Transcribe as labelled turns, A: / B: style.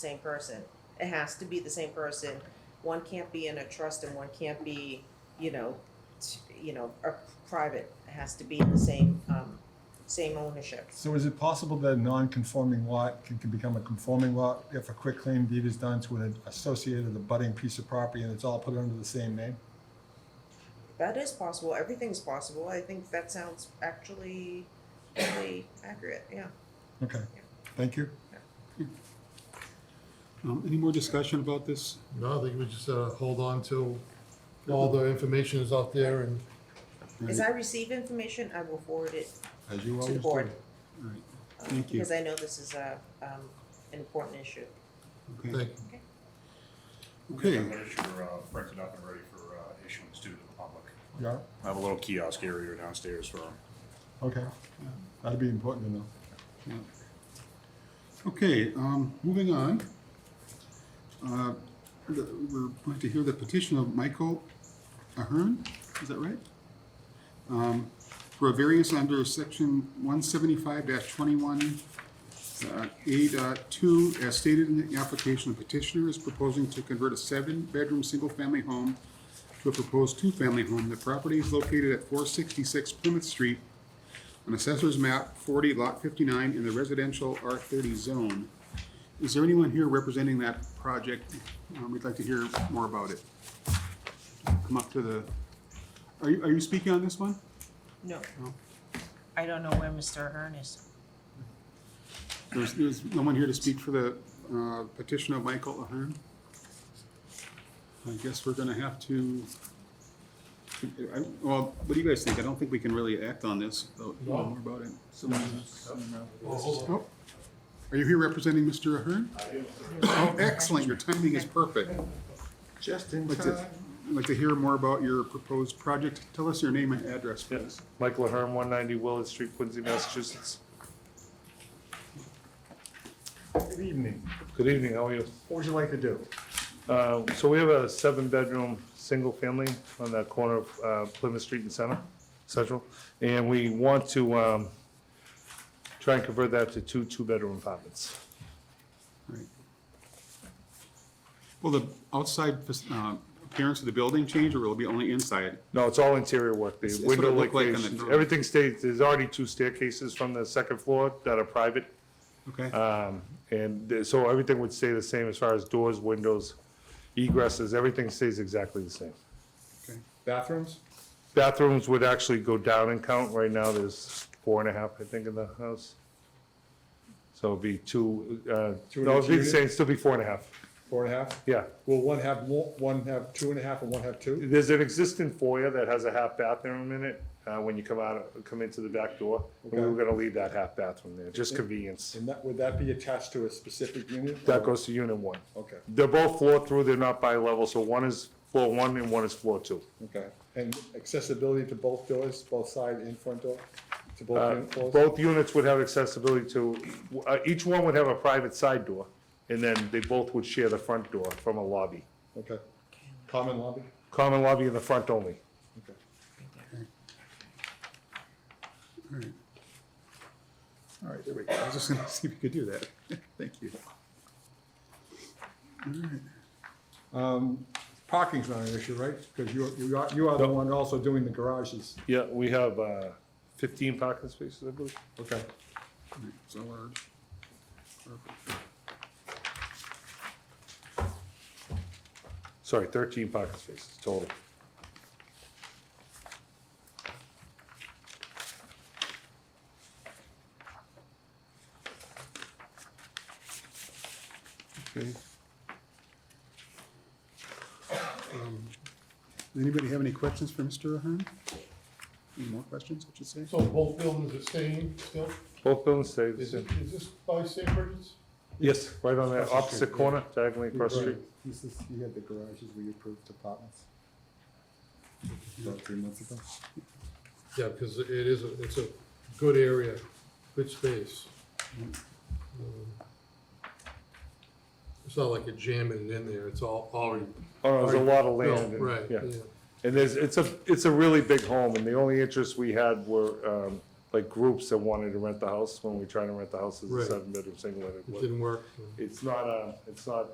A: same person. It has to be the same person. One can't be in a trust and one can't be, you know, t- you know, a private. It has to be in the same, um, same ownership.
B: So is it possible that a non-conforming lot can, can become a conforming lot if a quick claim deed is done to an associated abutting piece of property and it's all put under the same name?
A: That is possible. Everything's possible. I think that sounds actually really accurate, yeah.
B: Okay, thank you.
C: Um, Any more discussion about this?
D: No, I think we just uh, hold on till all the information is out there and
A: As I receive information, I will forward it
B: As you
A: to the
B: always do.
A: board.
C: All right, thank you.
A: Because I know this is a, um, an important issue.
C: Okay,
D: thank you.
C: Okay.
E: I'm gonna sure, uh, print it up and ready for, uh, issuance to the public.
B: Yeah,
E: I have a little kiosk area downstairs for,
B: okay. That'd be important to know.
C: yeah. Okay, um, moving on. Uh, the- We're going to hear the petition of Michael Ahern, is that right? Um, For a variance under section one seventy-five twenty-one Uh, A dot two, as stated in the application, the petitioner is proposing to convert a seven-bedroom, single-family home to a proposed two-family home. The property is located at four sixty-six Plymouth Street on Assessor's Map forty, Lot fifty-nine, in the residential R thirty zone. Is there anyone here representing that project? Um, We'd like to hear more about it. Come up to the, are you, are you speaking on this one?
A: No.
C: No.
A: I don't know where Mr. Ahern is.
C: There's, there's no one here to speak for the uh, petition of Michael Ahern? I guess we're gonna have to, I- well, what do you guys think? I don't think we can really act on this, though, know more about it. Someone else? Oh, Are you here representing Mr. Ahern? Oh, excellent, your timing is perfect.
D: Just in
C: I'd like to- I'd like to hear more about your proposed project. Tell us your name and address, please.
F: Yes, Michael Ahern, one ninety Willard Street, Quincy, Massachusetts.
G: Good evening.
F: Good evening, how are you?
G: What would you like to do?
F: Uh, so we have a seven-bedroom, single-family on the corner of uh, Plymouth Street and Center, Central. And we want to, um, try and convert that to two, two-bedroom apartments.
C: Right. Will the outside fac- uh, appearance of the building change, or will it be only inside?
F: No, it's all interior work,
C: It's-
F: the
C: it's what it
F: window
C: looked like on the
F: locations,
C: drawing.
F: everything stays, there's already two staircases from the second floor that are private.
C: Okay,
F: Um, and th- so everything would stay the same as far as doors, windows, egresses, everything stays exactly the same.
C: okay.
G: Bathrooms?
F: Bathrooms would actually go down in count. Right now, there's four and a half, I think, in the house. So it'd be two, uh,
G: Two in
F: no,
G: each
F: it'd be the
G: unit?
F: same, still be four and a half.
G: Four and a half?
F: Yeah.
G: Will one have, mo- one have two and a half and one have two?
F: There's an existing foyer that has a half bathroom in it, uh, when you come out, of- come into the back door. And we
G: Okay.
F: were gonna leave that half bathroom there, just convenience.
G: And that, would that be attached to a specific unit?
F: That goes to unit one.
G: Okay,
F: They're both floor through, they're not by level, so one is floor one and one is floor two.
G: okay. And accessibility to both doors, both side and front door? To both
F: Uh,
G: unit floors?
F: Both units would have accessibility to, uh, each one would have a private side door, and then they both would share the front door from a lobby.
G: Okay. Common lobby?
F: Common lobby in the front only.
G: Okay.
C: All right. All right, there we go. I was just gonna see if we could do that. Thank you.
G: Parking's not an issue, right? Because you, you are, you are the one also doing the garages.
F: Yeah, we have uh, 15 parking spaces, I believe.
G: Okay.
C: All right, So large.
F: Sorry, 13 parking spaces total.
C: Okay. Um, Anybody have any questions for Mr. Ahern? Any more questions, I should say?
D: So both buildings are staying still?
F: Both buildings stay the
D: Is it,
F: same.
D: is this by St. Bridget's?
F: Yes, right on that
G: Across the
F: opposite
G: street,
F: corner, diagonally across the street.
B: This is, you had the garages where you approved apartments? About three months ago?
D: Yeah, because it is, a- it's a good area, good space. Um, It's not like you're jamming it in there, it's all already.
F: Oh, no, there's a lot of land.
D: built,
F: and-
D: Right,
F: yeah.
D: yeah.
F: And there's, it's a, it's a really big home, and the only interests we had were um, like groups that wanted to rent the house when we tried to rent the house as a
D: Right.
F: seven-bedroom single. and it
D: It
F: wasn't-
D: didn't work.
F: It's not, uh, it's not